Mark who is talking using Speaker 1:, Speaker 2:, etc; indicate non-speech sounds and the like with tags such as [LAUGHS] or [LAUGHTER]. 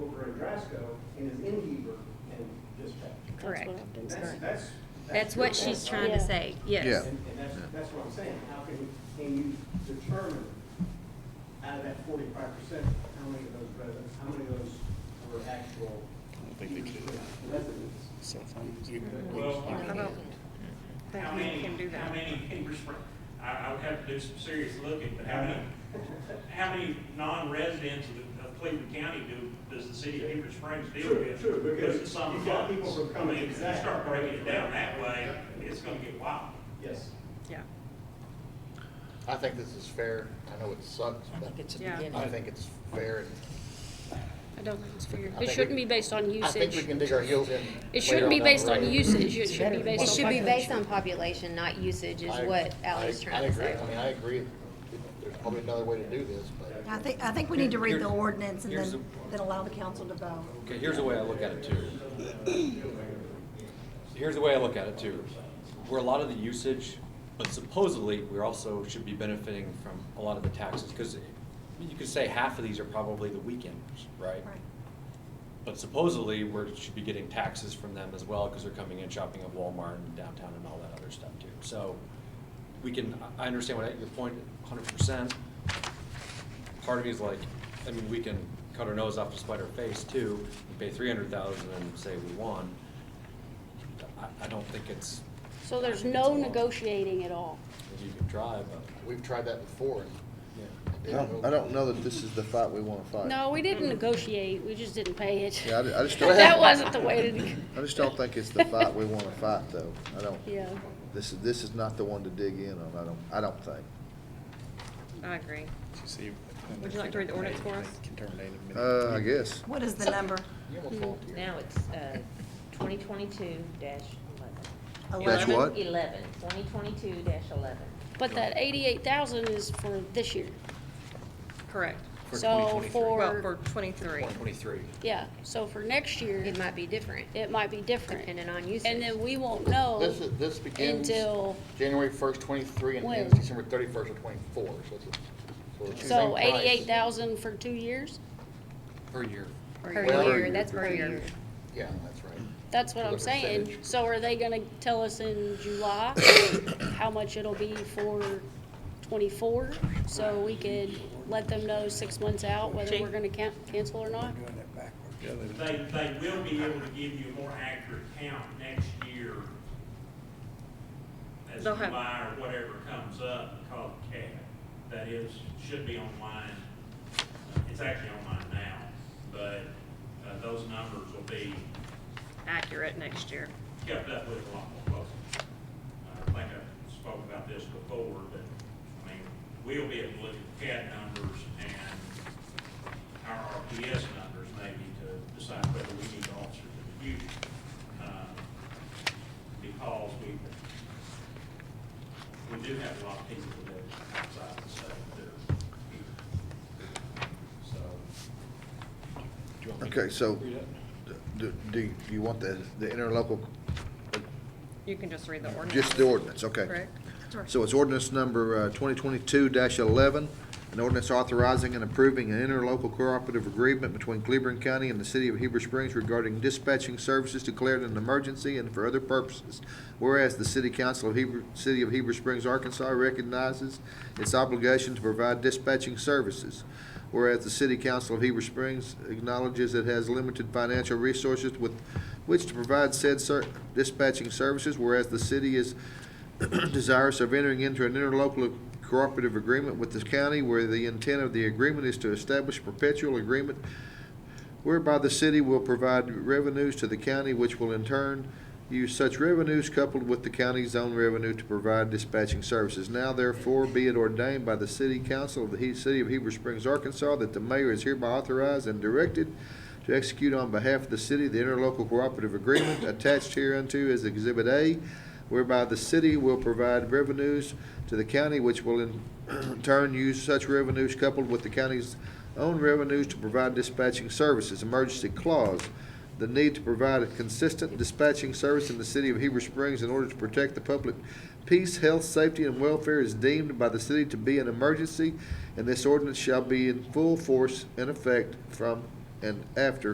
Speaker 1: Nebraska and is in Heber and dispatched.
Speaker 2: Correct.
Speaker 1: That's, that's.
Speaker 2: That's what she's trying to say,
Speaker 3: Yeah.
Speaker 2: yes.
Speaker 1: And, and that's, that's what I'm saying, how can, can you determine out of that forty-five percent, how many of those residents, how many of those were actual residents?
Speaker 4: Well,
Speaker 2: I
Speaker 5: uh,
Speaker 2: don't think
Speaker 4: how
Speaker 2: we
Speaker 4: many,
Speaker 2: can do
Speaker 4: how
Speaker 2: that.
Speaker 4: many Heber Spring, I, I would have to do some serious looking, but how many, how many non-residents of- of Cleveland County do, does the city of Heber Springs deal
Speaker 1: True,
Speaker 4: with?
Speaker 1: true, because
Speaker 4: Versus some
Speaker 1: you've got
Speaker 4: blocks.
Speaker 1: people from
Speaker 4: I mean, if you
Speaker 1: Cummings,
Speaker 4: start breaking it down that way, it's gonna get wild.
Speaker 1: Yes.
Speaker 2: Yeah,
Speaker 6: I think this is fair. I know it sucks,
Speaker 7: I
Speaker 6: but
Speaker 7: think it's a
Speaker 2: Yeah.
Speaker 7: beginning.
Speaker 6: I think it's fair and
Speaker 2: I don't think it's fair.
Speaker 6: I
Speaker 2: It
Speaker 6: think
Speaker 2: shouldn't
Speaker 6: we-
Speaker 2: be based on
Speaker 6: I think we
Speaker 2: usage.
Speaker 6: can dig our heels in.
Speaker 2: It shouldn't be based on usage, it should be
Speaker 8: It
Speaker 2: based
Speaker 8: should
Speaker 2: on
Speaker 8: be based
Speaker 2: population.
Speaker 8: on population, not usage, is what Ally's trying to
Speaker 6: I
Speaker 8: say.
Speaker 6: agree. I mean, I agree. There's probably another way to do this, but
Speaker 9: I think, I think we need to read the
Speaker 10: Here's-
Speaker 9: ordinance and
Speaker 10: here's
Speaker 9: then, then allow the council to vote.
Speaker 10: Okay, here's the way I look at it too. [CLEARS THROAT] Here's the way I look at it too. We're a lot of the usage, but supposedly we also should be benefiting from a lot of the taxes. Because you could say half of these are probably the weekenders, right?
Speaker 9: Right.
Speaker 10: But supposedly we should be getting taxes from them as well because they're coming in shopping at Walmart and downtown and all that other stuff too. So we can, I I understand what your point, hundred percent part of me is like, I mean, we can cut our nose off to spite our face too, and pay three hundred thousand and say we won. I, I don't think it's,
Speaker 2: So there's
Speaker 10: I think it's
Speaker 2: no
Speaker 10: a lot.
Speaker 2: negotiating at all.
Speaker 10: you can try, but,
Speaker 6: we've tried that before. and
Speaker 10: yeah.
Speaker 6: it
Speaker 3: I
Speaker 6: didn't
Speaker 3: don't,
Speaker 6: go-
Speaker 3: I don't know that this is the fight we wanna fight.
Speaker 2: No, we didn't negotiate, we just didn't pay it.
Speaker 3: Yeah, I ju-
Speaker 2: [LAUGHS]
Speaker 3: I just don't-
Speaker 2: That wasn't the way to, neg-
Speaker 3: I just don't think it's the fight we wanna fight, though. I don't,
Speaker 2: [LAUGHS] yeah.
Speaker 3: this is, this is not the one to dig in on, I don't, I don't think.
Speaker 5: I agree. Would you like to read the ordinance for us?
Speaker 3: Uh, I guess.
Speaker 9: What is the number?
Speaker 6: You almost volunteered.
Speaker 5: Now it's uh, twenty twenty-two dash
Speaker 3: That's what?
Speaker 5: eleven. Twenty twenty-two dash eleven.
Speaker 2: But that eighty-eight thousand is for this year.
Speaker 5: Correct.
Speaker 10: For
Speaker 2: So
Speaker 10: 2023.
Speaker 5: Well, for
Speaker 2: for,
Speaker 5: twenty-three.
Speaker 10: Twenty twenty-three.
Speaker 2: yeah, so for next year,
Speaker 8: It might be different,
Speaker 2: it might be different.
Speaker 8: depending on
Speaker 2: And
Speaker 8: usage.
Speaker 2: then we won't know.
Speaker 6: This is, this begins
Speaker 2: until-
Speaker 6: January first, twenty-three and
Speaker 2: When?
Speaker 6: ends December thirty-first of twenty-four, so it's, a- so it's the same
Speaker 2: So
Speaker 6: price.
Speaker 2: eighty-eight thousand for two years?
Speaker 10: per year.
Speaker 8: Per
Speaker 6: Well,
Speaker 8: year, that's per year.
Speaker 6: Yeah, that's right.
Speaker 2: That's what
Speaker 6: For the
Speaker 2: I'm saying.
Speaker 6: percentage.
Speaker 2: So are they gonna tell us in July how much it'll be for twenty-four? So we could let them know six months out whether we're gonna can- cancel or not?
Speaker 4: They, they will be able to give you a more accurate count next year as
Speaker 5: They'll have-
Speaker 4: July or whatever comes up, called CAD. That is, should be online. It's actually online now, but, uh, those numbers will be
Speaker 5: Accurate next year.
Speaker 4: kept up with a lot more closely. Uh, I think I spoke about this before, but, I mean, we'll be able to look at CAD numbers and our RPS numbers maybe to decide whether we need officers in the future. uh, Because we, we do have a lot of people that live outside the state that are here. So,
Speaker 3: Okay, so, do, do you want the, the interlocal,
Speaker 5: You can just read the ordinance.
Speaker 3: just the ordinance, okay?
Speaker 5: Correct.
Speaker 3: So it's ordinance number uh, twenty twenty-two eleven, an ordinance authorizing and approving an interlocal cooperative agreement between Cleveland County and the city of Heber Springs regarding dispatching services declared an emergency and for other purposes. Whereas the city council of Heber, city of Heber Springs, Arkansas recognizes its obligation to provide dispatching services. Whereas the city council of Heber Springs acknowledges it has limited financial resources with which to provide said ser- dispatching services. Whereas the city is [CLEARS THROAT] desirous of entering into an interlocal cooperative agreement with this county where the intent of the agreement is to establish perpetual agreement whereby the city will provide revenues to the county, which will in turn use such revenues coupled with the county's own revenue to provide dispatching services. Now therefore be it ordained by the city council of the He- city of Heber Springs, Arkansas, that the mayor is hereby authorized and directed to execute on behalf of the city the interlocal cooperative agreement attached hereunto as Exhibit A, whereby the city will provide revenues to the county, which will in [CLEARS THROAT] turn use such revenues coupled with the county's own revenues to provide dispatching services. Emergency clause, the need to provide a consistent dispatching service in the city of Heber Springs in order to protect the public peace, health, safety, and welfare is deemed by the city to be an emergency, and this ordinance shall be in full force and effect from and after